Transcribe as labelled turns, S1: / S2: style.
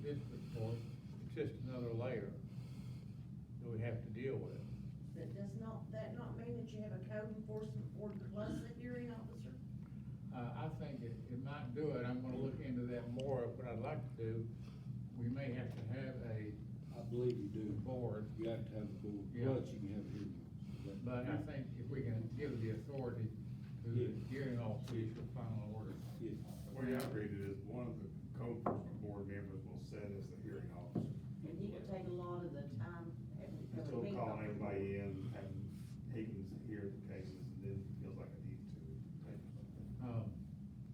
S1: enforcement board that was the hearing officer?
S2: Uh, I think it, it might do it, I'm gonna look into that more, what I'd like to do, we may have to have a,
S3: I believe you do.
S2: Board.
S3: You have to have a board,
S2: Yeah.
S3: but you can have a hearing.
S2: but I think if we can give the authority to the
S3: Yeah.
S2: hearing officer for final order.
S3: Yeah.
S4: The way I read it is, one of the code
S2: Um,